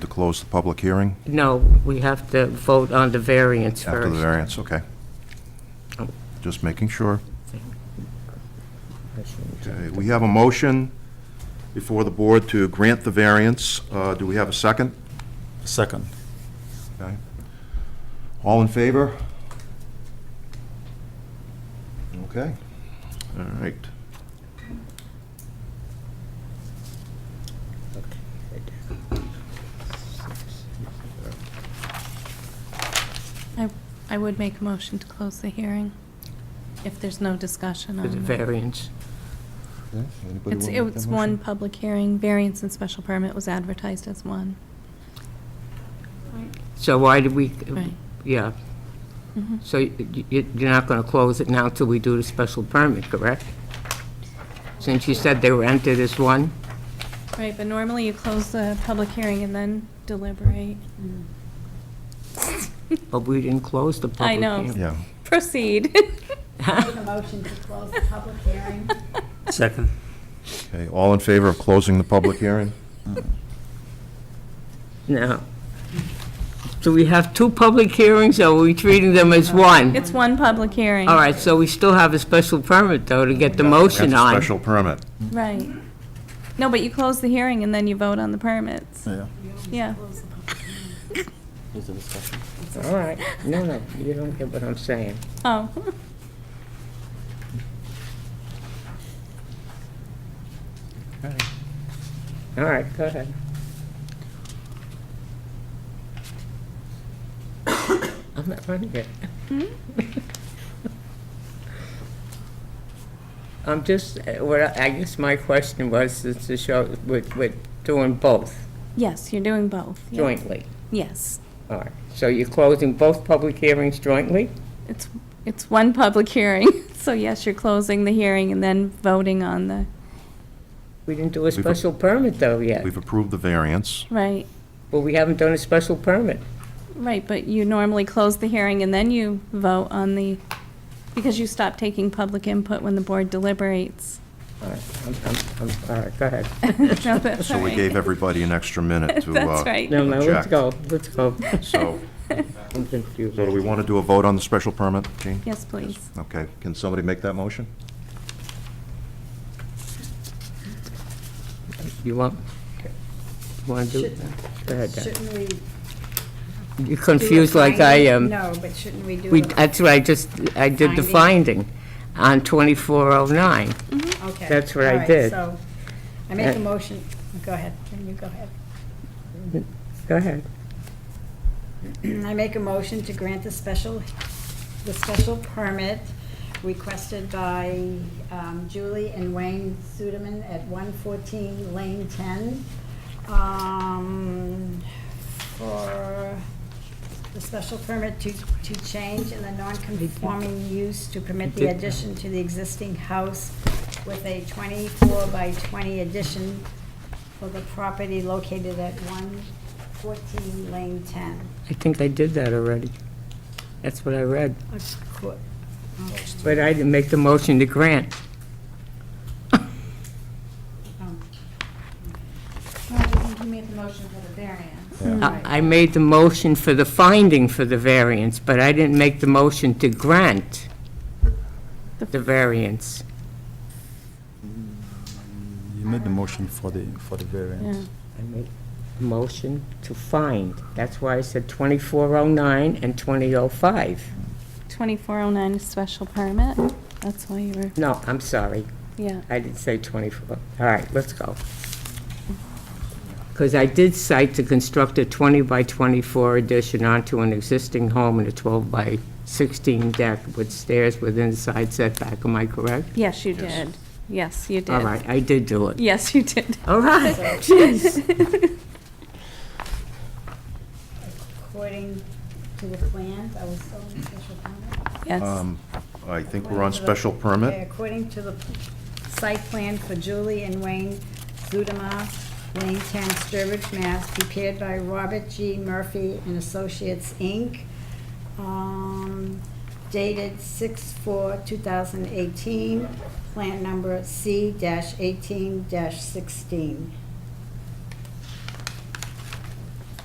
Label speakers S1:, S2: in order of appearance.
S1: close the public hearing
S2: No, we have to vote on the variance
S1: after the
S2: first.
S1: variance? Okay. Just making sure. Okay, we have a motion before the board to grant the variance. Uh, Do we have a second?
S3: Second.
S1: Okay. All in favor? Okay, all right.
S4: I, I would make a motion to close the hearing if there's no discussion
S2: The
S4: on it.
S2: variance.
S4: It's, it's one public hearing, variance and special permit was advertised as one.
S2: So why do we,
S4: Right. Mm-hmm.
S2: yeah. So y- y- you're not going to close it now till we do the special permit, correct? Since you said they were entered as one?
S4: Right, but normally you close the public hearing and then deliberate.
S2: But we didn't close the public
S4: I
S2: hearing.
S4: know.
S1: Yeah,
S4: Proceed.
S5: Make a motion to close the public hearing.
S3: Second.
S1: okay, all in favor of closing the public hearing?
S2: Now, do we have two public hearings, or are we treating them as one?
S4: It's one public hearing.
S2: All right, so we still have a special permit, though, to get the motion
S1: That's a
S2: on.
S1: Special permit.
S4: Right. No, but you close the hearing and then you vote on the permits.
S3: Yeah.
S4: Yeah.
S3: Is the discussion?
S2: All right, no, no, you don't get what I'm saying.
S4: Oh.
S2: All right, go ahead. I'm not running it. I'm just, uh, what, I I guess my question was, is to show, we're, we're doing both
S4: Yes, you're doing both. Yeah.
S2: jointly.
S4: Yes.
S2: All right, so you're closing both public hearings jointly?
S4: It's, it's one public hearing, so yes, you're closing the hearing and then voting on the,
S2: We didn't do a
S1: vo-
S2: special permit, though, yet.
S1: We've approved the variance.
S4: right,
S2: Well, we haven't done a special permit.
S4: right, but you normally close the hearing and then you vote on the, because you stop taking public input when the board deliberates.
S2: All right, I'm, I'm, I'm- all right, go ahead.
S4: No, that's
S1: So
S4: all
S1: we
S4: right.
S1: gave everybody an extra minute to. uh,
S4: That's right.
S2: No, no, let's
S1: Jack.
S2: go, let's go.
S1: So,
S2: I'm confused.
S1: so do we want to do a vote on the special permit, Jean?
S4: Yes, please.
S1: Okay, can somebody make that motion?
S2: You want, you want to do? Go ahead, Dan.
S5: Shouldn't we? do
S2: You're
S5: a
S2: confused like I
S5: finding?
S2: am.
S5: No, but shouldn't we do
S2: We,
S5: it?
S2: that's what I just, I did the
S5: Finding.
S2: finding on 2409.
S5: Okay.
S2: that's what I
S5: All right,
S2: did.
S5: So I make
S2: Uh,
S5: a motion, go ahead, Then you go ahead.
S2: Go ahead.
S5: I make a motion to grant the special, the special permit requested by um, Julie and Wayne Suderman at 114 Lane 10 um, for the special permit to, to change in the non-conforming use to permit the addition to the existing house with a 24 by 20 addition for the property located at 114 Lane 10.
S2: I think I did that already. That's what I read.
S5: A qu- okay,
S2: But I didn't make the motion to grant.
S5: um,
S6: You made the motion for the variance.
S5: Mm.
S2: I I made the motion for the finding for the variance, but I didn't make the motion to grant the variance.
S3: You made the motion for the, for the variance.
S2: I made a motion to find. That's why I said 2409 and 2005.
S4: 2409 is special permit, that's why you were,
S2: No, I'm sorry.
S4: yeah.
S2: I didn't say 24. All right, let's go. Because I did cite to construct a 20 by 24 addition onto an existing home and a 12 by 16 deck with stairs with inside setback. Am I correct?
S4: Yes, you did. Yes, you
S2: All
S4: did.
S2: right, I did do it.
S4: Yes, you did.
S2: All right, jeez.
S5: According to the plans, I was still in special permit.
S4: Yes.
S1: Um, I think we're on special
S5: Okay,
S1: permit.
S5: According to the site plan for Julie and Wayne Zudema, Lane 10, Sturbridge, Mass., prepared by Robert G. Murphy and Associates, Inc., um, dated 6/4/2018, plan number C-18-16.